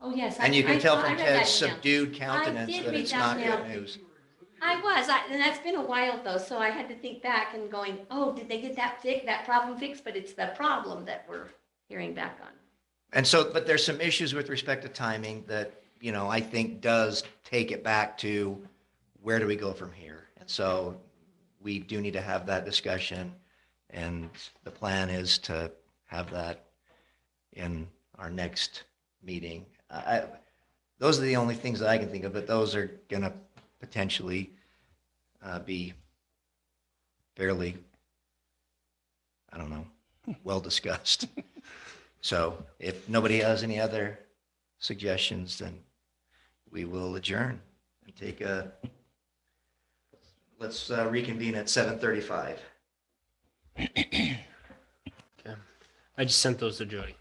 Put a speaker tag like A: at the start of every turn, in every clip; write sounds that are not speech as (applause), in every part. A: Oh, yes. I-
B: And you
A: I
B: can tell
A: saw- I
B: from
A: read that
B: Ted's
A: email.
B: subdued countenance
A: did
B: that
A: read
B: it's
A: that
B: not
A: email.
B: good news.
A: I was, I, and that's been a while though, so I had to think back and going, oh, did they get that fix, that problem fixed? But it's the problem that we're hearing back on.
B: And so, but there's some issues with respect to timing that, you know, I think does take it back to where do we go from here? And so we do need to have that discussion. And the plan is to have that in our next meeting. I, I- those are the only things that I can think of, but those are going to potentially uh, be fairly, I don't know, well discussed. So if nobody has any other suggestions, then we will adjourn and take a, let's uh, reconvene at 7:35.
C: I just sent those to Jody,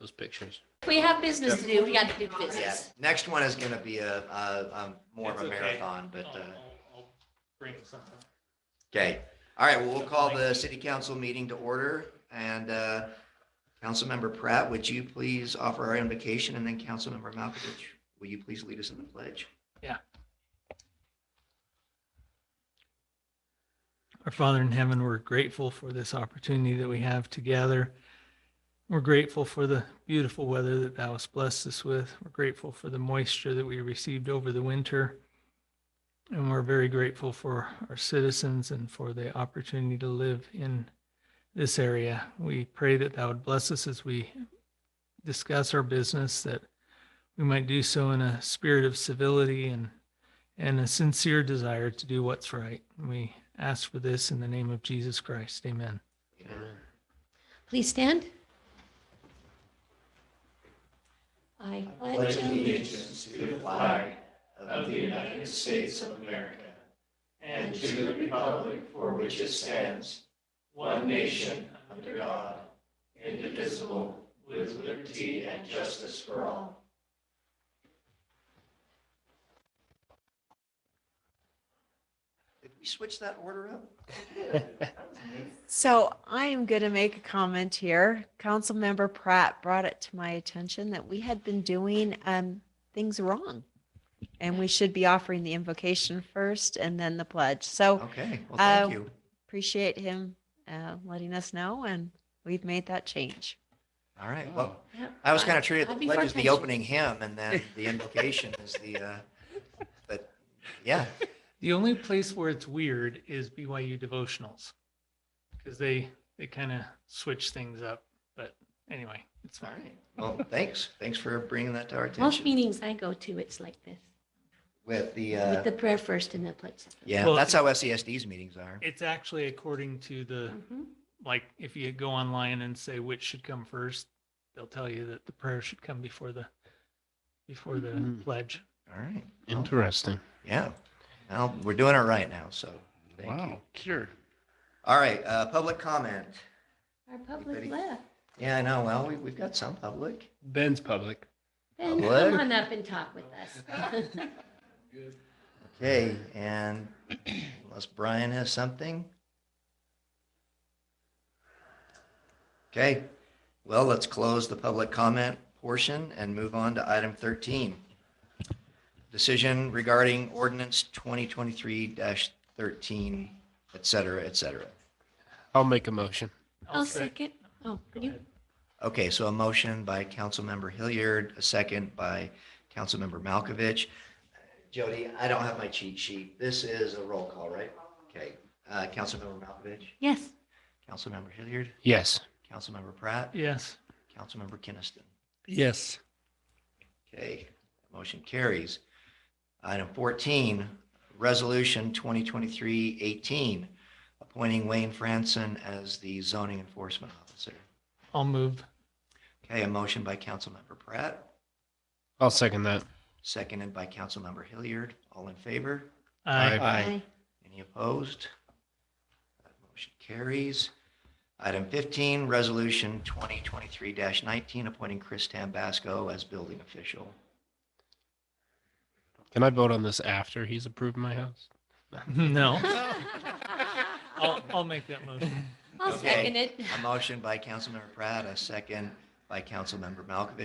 C: those pictures.
A: If we have business to do, we got to do
B: Yeah,
A: business.
B: next one is going to be a, a- a more of a
D: It's okay.
B: marathon, but,
D: I'll-
B: uh,
D: I'll- I'll Bring something.
B: okay. All right, well, we'll call the city council meeting to order. And uh, Councilmember Pratt, would you please offer our invocation? And then Councilmember Malkovich, will you please lead us in the pledge?
D: Our Father in heaven, we're grateful for this opportunity that we have to gather. We're grateful for the beautiful weather that thou hast blessed us with. We're grateful for the moisture that we received over the winter. And we're very grateful for our citizens and for the opportunity to live in this area. We pray that thou would bless us as we discuss our business, that we might do so in a spirit of civility and and a sincere desire to do what's right. We ask for this in the name of Jesus Christ. Amen.
C: Amen.
A: Please stand. I pledge allegiance
E: to the flag of the United States of America and to the republic for which it stands, one nation under God, indivisible, with liberty and justice for all.
B: Did we switch that order up?
F: So I am going to make a comment here. Councilmember Pratt brought it to my attention that we had been doing um, things wrong. And we should be offering the invocation first and then the pledge. So
B: Okay, well, thank
F: Uh,
B: you.
F: appreciate him uh, letting us know and we've made that change.
B: All right, well,
A: Yep.
B: I was kind of treated the
A: I'd be for
B: pledge as the
A: pension.
B: opening hymn and then the invocation is the, uh, but yeah,
D: The only place where it's weird is BYU devotionals because they they kind of switch things up. But anyway, it's
B: all
D: fine.
B: right. Well, thanks. Thanks for bringing that to our
A: Most
B: attention
A: meetings I go to, it's like this,
B: with the,
A: with
B: uh,
A: the prayer first and the pledge. second.
B: yeah,
D: Well,
B: that's how SESD's meetings are.
D: It's actually according to the
B: Mm-hmm.
A: Mhm.
D: like if you go online and say which should come first, they'll tell you that the prayer should come before the before the
B: Mm-hmm.
C: Mhm.
D: pledge.
B: All right. Well,
C: Interesting.
B: Yeah. Well, we're doing it right now, so thank you.
C: Wow, sure.
B: All right, uh, public comment.
A: Our public
B: Anybody?
A: left.
B: Yeah, I know. Well, we, we've got some public.
C: Ben's public.
A: Ben,
B: Public.
A: come on up and talk with us.
B: (laughs) Okay, and unless Brian has something? Okay, well, let's close the public comment portion and move on to item 13. Decision regarding ordinance 2023-13, et cetera, et cetera.
C: I'll make a motion.
A: I'll second. Oh,
D: Go
A: you,
D: ahead.
B: Okay, so a motion by Councilmember Hilliard, a second by Councilmember Malkovich. Jody, I don't have my cheat sheet. This is a roll call, right? Okay, uh, Councilmember Malkovich,
A: yes.
B: Councilmember Hilliard,
C: Yes.
B: Councilmember Pratt,
D: Yes.
B: Councilmember Kinnison.
C: Yes.
B: Okay, motion carries. Item 14, Resolution 2023-18, appointing Wayne Franson as the zoning enforcement officer.
D: I'll move.
B: Okay, a motion by Councilmember Pratt.
C: I'll second that.
B: Seconded by Councilmember Hilliard. All in favor?
D: Aye.
A: Aye.
B: Any opposed? That Motion carries. Item 15, Resolution 2023-19, appointing Chris Tambasco as building official.
C: Can I vote on this after he's approved my house?
D: (laughs) No.
A: I'll
D: I'll, I'll make that motion.
A: (laughs) second it.
B: A motion by Councilmember Pratt, a second by Councilmember Malkovich.